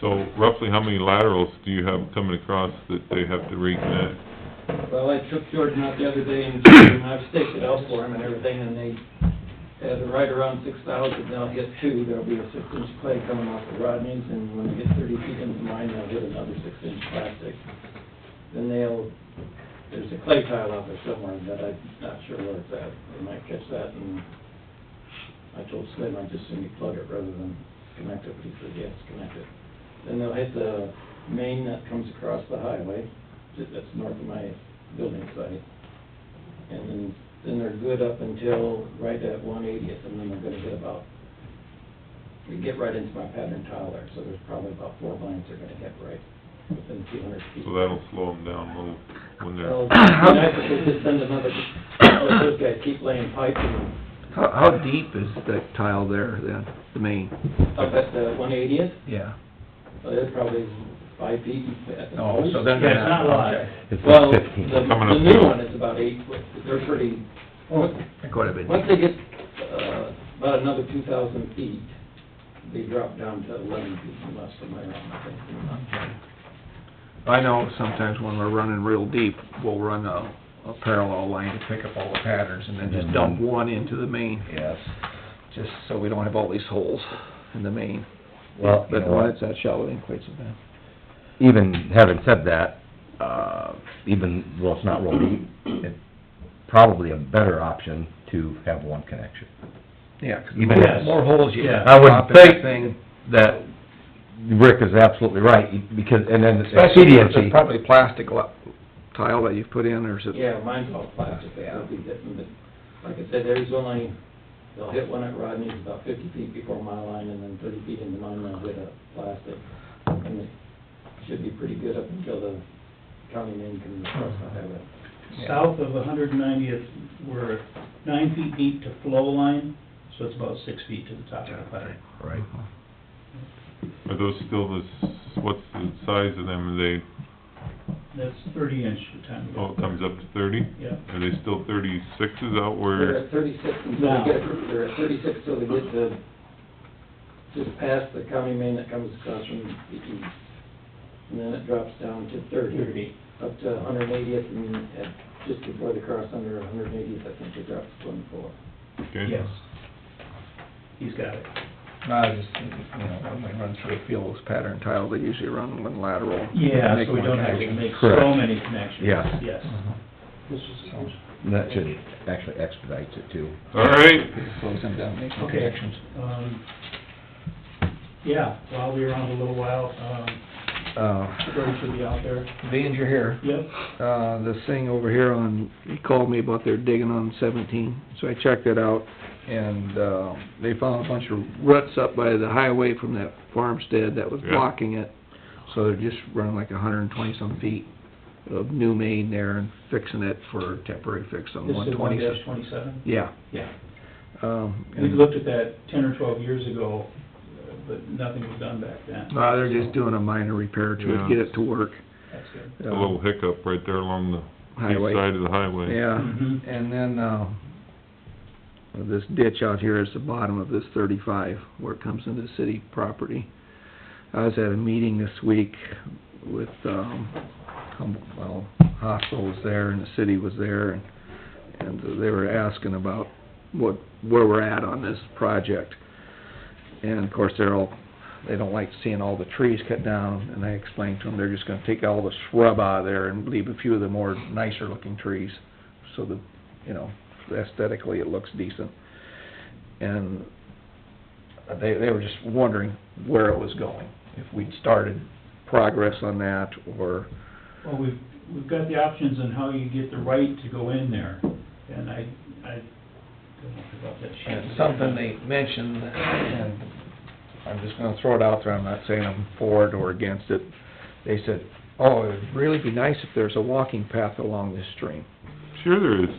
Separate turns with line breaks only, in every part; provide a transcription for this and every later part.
So roughly, how many laterals do you have coming across that they have to reconnect?
Well, I took Jordan out the other day and checked him, I've staked it out for him and everything, and they had it right around six thousand, they'll get two, there'll be a six inch clay coming off the Rodneys, and when they get thirty feet into mine, they'll get another six inch plastic. Then they'll, there's a clay tile out there somewhere, but I'm not sure where it's at, they might catch that, and I told Slim, I'd just send you plug it rather than connect it, but he said, yes, connect it. Then they'll hit the main that comes across the highway, ju- that's north of my building site. And then, then they're good up until right at one eightieth, and then they're gonna hit about, we get right into my pattern tile there, so there's probably about four lines they're gonna hit right within two hundred feet.
So that'll slow them down a little when
So,
Oh.
I
they're,
mean, I think they just send another, let those guys keep laying pipe and
How, how deep is that tile there then, the main?
up at the one eightieth,
Yeah.
so they're probably five feet at the
Oh,
most.
so then they're
Yeah, it's not a lot.
It's
Well,
like
the,
fifteen.
Coming up
the new
soon.
one is about eight foot, they're pretty,
Quite a bit.
once they get, uh, about another two thousand feet, they drop down to eleven feet unless I'm wrong, I think.
I know sometimes when we're running real deep, we'll run a, a parallel line to pick up all the patterns and then
Mm-hmm.
just dump one into the main,
Yes.
just so we don't have all these holes in the main.
Well, you
But
know
why
what?
it's that shallow, it ain't quite so bad.
even having said that, uh, even though it's not real deep, it's probably a better option to have one connection.
Yeah, 'cause the
Even
more-
if-
more holes you
I would
drop in
think-
that thing,
That, Rick is absolutely right, because, and then it's
especially if it's
expediency.
probably plastic lo- tile that you've put in or is it?
Yeah, mine's all plastic, that'll be different, but like I said, there's only, they'll hit one at Rodney's about fifty feet before my line, and then thirty feet into mine, they'll hit a plastic. And it should be pretty good up until the county main comes across the highway.
South of 190th, we're nine feet deep to flow line, so it's about six feet to the top of the pipe.
Right.
are those still the, s- what's the size of them? Are they,
That's 30 inch to time.
oh, it comes up to thirty?
Yeah.
Are they still thirty-sixes out
They're
where,
at thirty-six until they get, they're at thirty-six till they get to, just past the county main that comes across from the east. And then it drops down to thirty, up to hundred and eightieth, and at, just before they cross under hundred and eightieth, I think it drops to twenty-four.
okay?
Yes. He's got it.
I just, you know, when we run through a field, those pattern tile, they usually run one lateral.
Yeah,
make
so we
one
don't have to
connection.
make so
Correct.
many connections.
Yeah.
Yes.
So,
That should actually expedite it too.
All right,
it slows them down, makes some
Okay.
connections.
Um, Yeah, while we were on a little while, um,
Oh.
Uh,
Gordon should be out there.
being you're here,
Yep,
uh, this thing over here on, he called me about their digging on seventeen, so I checked it out, and, uh, they found a bunch of ruts up by the highway from that farmstead that was
Yeah.
blocking it, so they're just running like hundred and twenty-some feet of new main there and fixing it for temporary fix on
this
one
is one
twenty.
dash twenty-seven.
Yeah.
Yeah.
Um,
We
and-
looked at that ten or twelve years ago, uh, but nothing was done back then.
No, they're just doing a minor repair to
Yeah.
it, get it to work.
That's good.
a little hiccup right there along the
Uh,
east
Highway,
side of the highway.
yeah,
Mhm.
and then, uh, this ditch out here is the bottom of this thirty-five, where it comes into city property. I was at a meeting this week with, um, Humboldt, well, hospital was there and the city was there, and, and they were asking about what, where we're at on this project. And of course, they're all, they don't like seeing all the trees cut down, and I explained to them, they're just gonna take all the shrub out of there and leave a few of the more nicer looking trees, so that, you know, aesthetically it looks decent. And they, they were just wondering where it was going, if we'd started progress on that, or,
Well, we've, we've got the options on how you get the right to go in there, and I, I don't know about that sheet.
and something they mentioned, and I'm just gonna throw it out there, I'm not saying I'm for it or against it. They said, oh, it'd really be nice if there's a walking path along this stream,
Sure there is.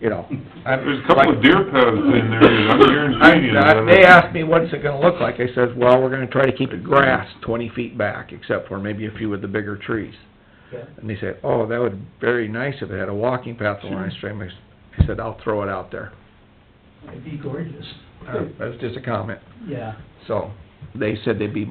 you know. I'm-
There's a couple of deer paths in there that I'm
I-
guaranteeing.
I- They asked me, what's it gonna look like? I says, well, we're gonna try to keep it grass twenty feet back, except for maybe a few of the bigger trees.
Yeah.
And they said, oh, that would be very nice if it had a walking path along the stream. I s- I said, I'll throw it out there.
It'd be gorgeous.
Uh, That was just a comment.
Yeah.
So, they said they'd be